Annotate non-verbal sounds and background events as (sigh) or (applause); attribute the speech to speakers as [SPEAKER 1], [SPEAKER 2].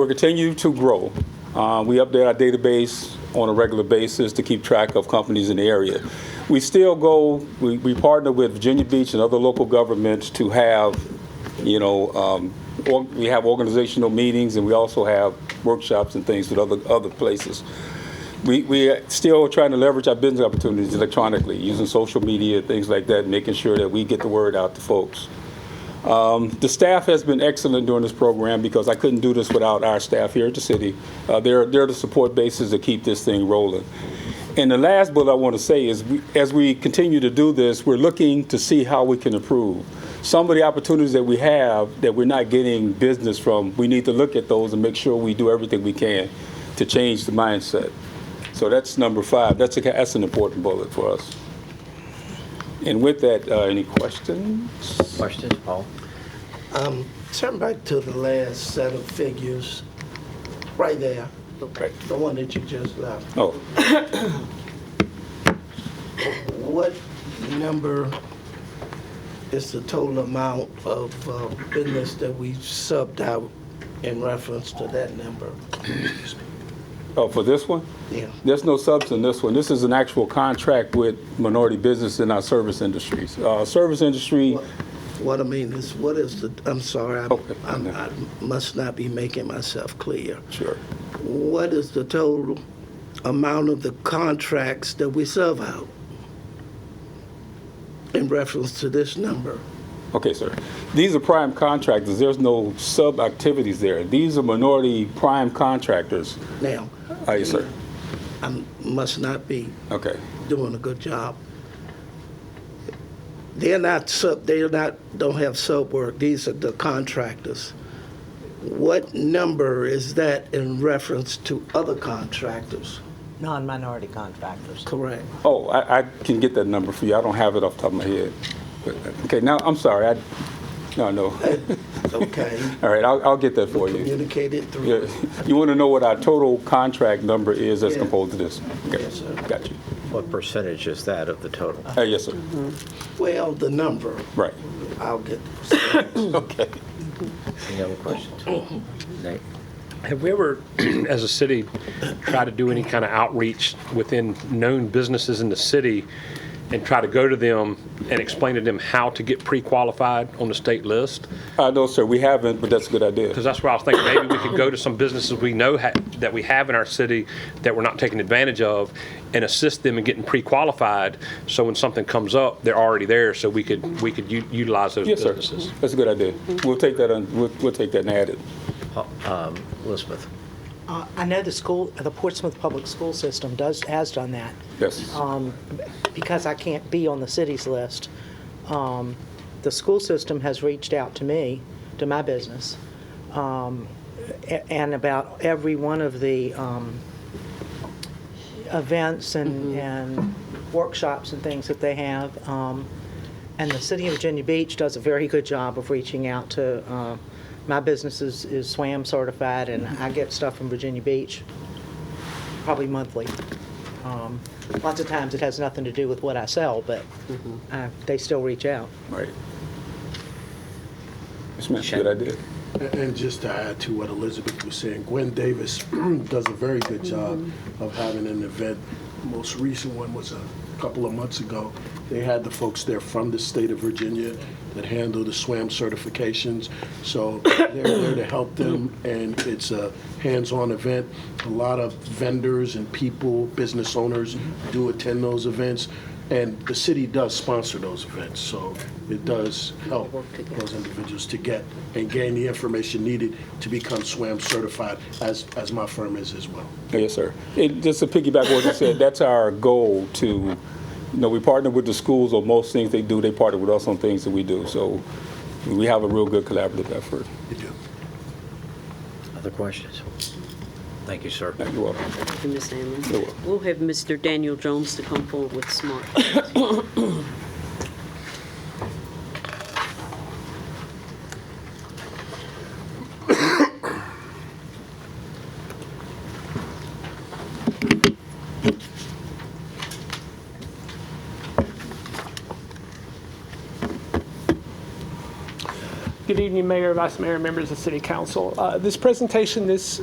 [SPEAKER 1] We'll continue to grow. Uh, We update our database on a regular basis to keep track of companies in the area. We still go, we we partner with Virginia Beach and other local governments to have, you know, um, or- we have organizational meetings, and we also have workshops and things with other other places. We, we are still trying to leverage our business opportunities electronically, using social media, things like that, making sure that we get the word out to folks. The staff has been excellent during this program because I couldn't do this without our staff here at the city. Uh, They're, they're the support bases that keep this thing rolling. And the last bullet I want to say is, we- as we continue to do this, we're looking to see how we can improve. Some of the opportunities that we have that we're not getting business from, we need to look at those and make sure we do everything we can to change the mindset. So that's number five. That's, a, that's an important bullet for us. And with that, uh, any questions?
[SPEAKER 2] Questions, Paul?
[SPEAKER 3] Turn back to the last set of figures, right there, the
[SPEAKER 1] Right.
[SPEAKER 3] the one that you just left.
[SPEAKER 1] Oh,
[SPEAKER 3] What number is the total amount of uh, business that we subbed out in reference to that number?
[SPEAKER 1] oh, for this one?
[SPEAKER 3] Yeah,
[SPEAKER 1] There's no substance in this one. This is an actual contract with minority business in our service industries. Uh, Service industry,
[SPEAKER 3] what I mean is, what is the, I'm sorry,
[SPEAKER 1] Okay.
[SPEAKER 3] I- I'm- I must not be making myself clear.
[SPEAKER 1] sure,
[SPEAKER 3] What is the total amount of the contracts that we serve out in reference to this number?
[SPEAKER 1] okay, sir. These are prime contractors, there's no sub-activities there. These are minority prime contractors.
[SPEAKER 3] Now,
[SPEAKER 1] Ah, yes, sir,
[SPEAKER 3] I must not be
[SPEAKER 1] okay.
[SPEAKER 3] doing a good job. They're not sub, they're not, don't have sub work, these are the contractors. What number is that in reference to other contractors?
[SPEAKER 4] Non-minority contractors.
[SPEAKER 1] (laughs)
[SPEAKER 3] Correct.
[SPEAKER 1] Oh, I, I can get that number for you, I don't have it off the top of my head. But, Okay, now, I'm sorry, I, no, no.
[SPEAKER 3] Okay,
[SPEAKER 1] All right, I'll, I'll get that for you.
[SPEAKER 3] communicated
[SPEAKER 1] Yeah.
[SPEAKER 3] through.
[SPEAKER 1] You want to know what our total contract number is that's
[SPEAKER 3] Yeah.
[SPEAKER 1] composed of this? Okay,
[SPEAKER 3] Yes, sir.
[SPEAKER 1] Got you.
[SPEAKER 2] What percentage is that of the total?
[SPEAKER 1] Ah, Yes, sir,
[SPEAKER 3] Well, the number,
[SPEAKER 1] right,
[SPEAKER 3] I'll get,
[SPEAKER 1] okay.
[SPEAKER 2] Any other questions? Nate?
[SPEAKER 5] Have we ever, (clears throat) as a city, tried to do any kind of outreach within known businesses in the city and try to go to them and explain to them how to get pre-qualified on the state list?
[SPEAKER 1] Uh, no, sir, we haven't, but that's a good idea.
[SPEAKER 5] Because that's where I was thinking, maybe we could go to some businesses we know ha- that we have in our city that we're not taking advantage of and assist them in getting pre-qualified, so when something comes up, they're already there, so we could, we could u- utilize those
[SPEAKER 1] Yes, sir.
[SPEAKER 5] businesses.
[SPEAKER 1] That's a good idea. We'll take that, on- we'll, we'll take that and add it.
[SPEAKER 2] Pa- um, Elizabeth?
[SPEAKER 4] Uh, I know the school, the Portsmouth Public School System does, has done that.
[SPEAKER 1] Yes.
[SPEAKER 4] Um, Because I can't be on the city's list, um, the school system has reached out to me, to my business, um, a- and about every one of the um, events and and workshops and things that they have. Um, And the city of Virginia Beach does a very good job of reaching out to, uh, my business is is SWAM certified, and I get stuff from Virginia Beach probably monthly. Um, Lots of times, it has nothing to do with what I sell, but uh, they still reach out.
[SPEAKER 1] Right. Yes, ma'am, good idea.
[SPEAKER 6] And just to add to what Elizabeth was saying, Gwen Davis (clears throat) does a very good job of having an event. Most recent one was a couple of months ago. They had the folks there from the state of Virginia that handle the SWAM certifications. So they're there to help them, and it's a hands-on event. A lot of vendors and people, business owners do attend those events, and the city does sponsor those events, so it does help those individuals to get and gain the information needed to become SWAM certified, as, as my firm is as well.
[SPEAKER 1] Yes, sir. It, just to piggyback what you said, (laughs) that's our goal to, you know, we partner with the schools on most things they do. They partner with us on things that we do. So we have a real good collaborative effort.
[SPEAKER 6] You do.
[SPEAKER 2] Other questions? Thank you, sir.
[SPEAKER 1] Thank you all.
[SPEAKER 7] Thank you, Ms. Allen.
[SPEAKER 1] You're welcome.
[SPEAKER 7] We'll have Mr. Daniel Jones to come forward with smart.
[SPEAKER 8] Good evening, Mayor, Vice Mayor, members of City Council. Uh, This presentation this